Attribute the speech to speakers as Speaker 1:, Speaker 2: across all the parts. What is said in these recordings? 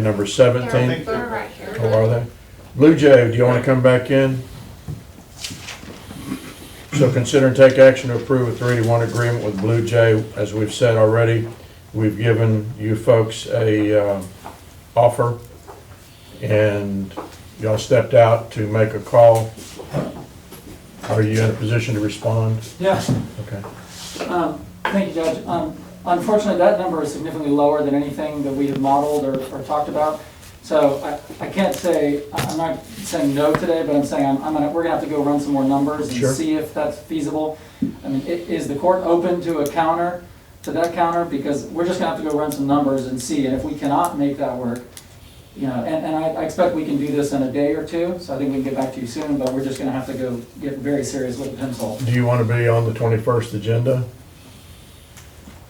Speaker 1: Number
Speaker 2: They're-
Speaker 1: seventeen,
Speaker 2: They're right here.
Speaker 1: oh, are they? Blue Jay, do you wanna come back in? So consider and take action to approve a three to one agreement with Blue Jay. As we've said already, we've given you folks a, uh, offer. And y'all stepped out to make a call. Are you in a position to respond?
Speaker 3: Yes,
Speaker 1: Okay.
Speaker 3: um, thank you, Judge. Um, Unfortunately, that number is significantly lower than anything that we have modeled or, or talked about. So I, I can't say, I- I'm not saying no today, but I'm saying I'm, I'm gonna, we're gonna have to go run some more numbers and
Speaker 1: Sure.
Speaker 3: see if that's feasible. I mean, i- is the court open to a counter, to that counter? Because we're just gonna have to go run some numbers and see, and if we cannot make that work, you know, and, and I, I expect we can do this in a day or two, so I think we can get back to you soon, but we're just gonna have to go get very serious with the pencil.
Speaker 1: Do you wanna be on the twenty-first agenda?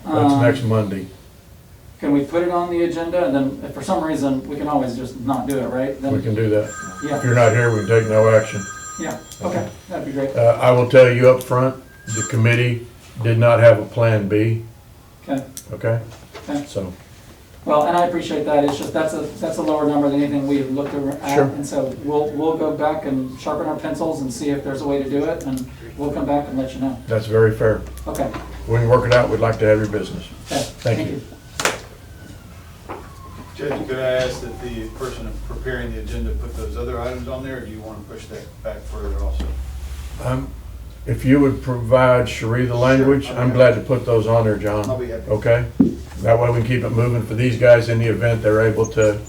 Speaker 1: That's
Speaker 3: Um,
Speaker 1: next Monday.
Speaker 3: Can we put it on the agenda, and then if for some reason, we can always just not do it, right?
Speaker 1: We
Speaker 3: Then,
Speaker 1: can do that. If
Speaker 3: yeah,
Speaker 1: you're not here, we can take no action.
Speaker 3: yeah, okay, that'd be great,
Speaker 1: Uh, I will tell you up front, the committee did not have a plan B,
Speaker 3: okay.
Speaker 1: okay?
Speaker 3: Okay.
Speaker 1: So,
Speaker 3: Well, and I appreciate that, it's just, that's a, that's a lower number than anything we have looked ar- at.
Speaker 1: Sure.
Speaker 3: And so we'll, we'll go back and sharpen our pencils and see if there's a way to do it, and we'll come back and let you know.
Speaker 1: that's very fair.
Speaker 3: Okay,
Speaker 1: We can work it out, we'd like to have your business.
Speaker 3: okay,
Speaker 1: you.
Speaker 3: thank you.
Speaker 4: Judge, could I ask that the person preparing the agenda put those other items on there, or do you want to push that back further also?
Speaker 1: Um, If you would provide Cherie the language,
Speaker 4: Sure.
Speaker 1: I'm glad to put those on there, John.
Speaker 4: I'll be happy.
Speaker 1: Okay? That way we can keep it moving for these guys in the event they're able to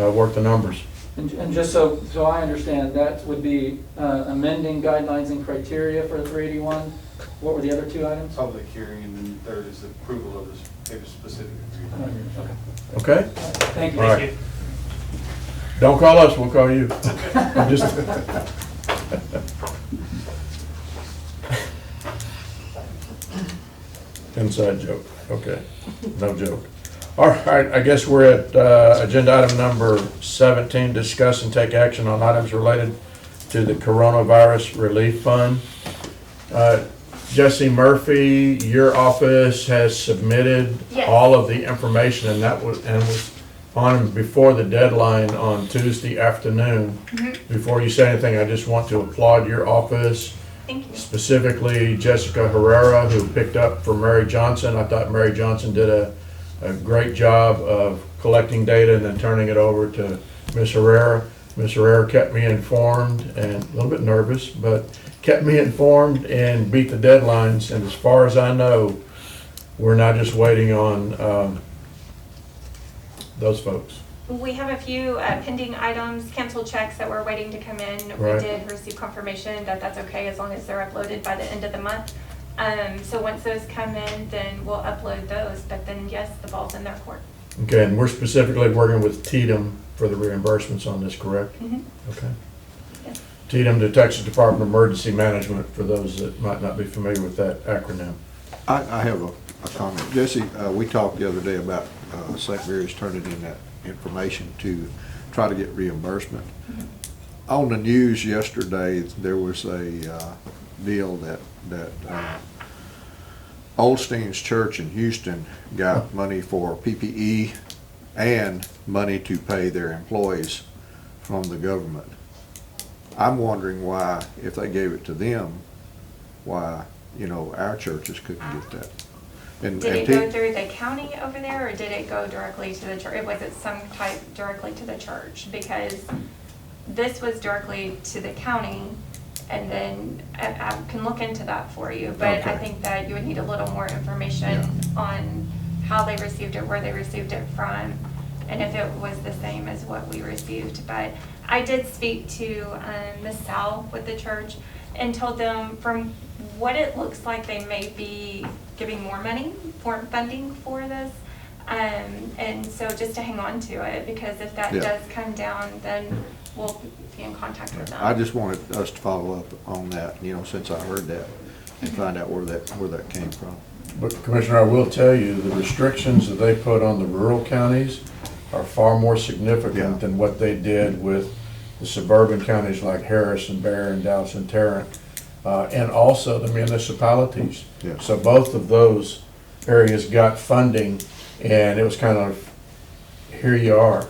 Speaker 1: uh, work the numbers.
Speaker 3: And, and just so, so I understand, that would be uh, amending guidelines and criteria for three eighty-one? What were the other two items?
Speaker 4: Public hearing, and then third is the approval of this paper-specific agreement.
Speaker 3: Okay,
Speaker 1: Okay?
Speaker 3: thank you.
Speaker 1: All right. Don't call us, we'll call you. I'm just- Inside joke, okay, no joke. All right, I guess we're at uh, agenda item number 17, discuss and take action on items related to the coronavirus relief fund. Uh, Jesse Murphy, your office has submitted
Speaker 2: Yes.
Speaker 1: all of the information and that was, and was on before the deadline on Tuesday afternoon. Before you say anything, I just want to applaud your office
Speaker 2: Thank you.
Speaker 1: specifically Jessica Herrera, who picked up for Mary Johnson. I thought Mary Johnson did a, a great job of collecting data and then turning it over to Ms. Herrera. Ms. Herrera kept me informed and a little bit nervous, but kept me informed and beat the deadlines. And as far as I know, we're not just waiting on, um, those folks.
Speaker 2: We have a few uh, pending items, canceled checks that we're waiting to come in. We
Speaker 1: Right.
Speaker 2: did receive confirmation that that's okay as long as they're uploaded by the end of the month. Um, So once those come in, then we'll upload those, but then yes, the ball's in their court.
Speaker 1: Okay, and we're specifically working with Tatum for the reimbursements on this, correct?
Speaker 2: Mhm.
Speaker 1: Okay.
Speaker 2: Yes.
Speaker 1: TDM to Texas Department of Emergency Management, for those that might not be familiar with that acronym.
Speaker 5: I, I have a, a comment. Jesse, uh, we talked the other day about, uh, St. Mary's turning in that information to try to get reimbursement. On the news yesterday, there was a, uh, deal that, that, uh, Olstein's Church in Houston got money for PPE and money to pay their employees from the government. I'm wondering why, if they gave it to them, why, you know, our churches couldn't get that. And-
Speaker 2: Did
Speaker 5: and
Speaker 2: it
Speaker 5: T-
Speaker 2: go through the county over there or did it go directly to the church? Was it some type directly to the church? Because this was directly to the county and then I, I can look into that for you. But I
Speaker 5: Okay.
Speaker 2: think that you would need a little more information on how they received it, where they received it from, and if it was the same as what we received. But I did speak to um, Ms. Sal with the church and told them from what it looks like, they may be giving more money, more funding for this. Um, And so just to hang on to it, because if that
Speaker 5: Yeah.
Speaker 2: does come down, then we'll be in contact with them.
Speaker 5: I just wanted us to follow up on that, you know, since I heard that, and find out where that, where that came from.
Speaker 1: But Commissioner, I will tell you, the restrictions that they put on the rural counties are far more significant
Speaker 5: Yeah.
Speaker 1: than what they did with the suburban counties like Harris and Barron, Dallas and Tarrant, uh, and also the municipalities.
Speaker 5: Yeah.
Speaker 1: So both of those areas got funding, and it was kind of, here you are.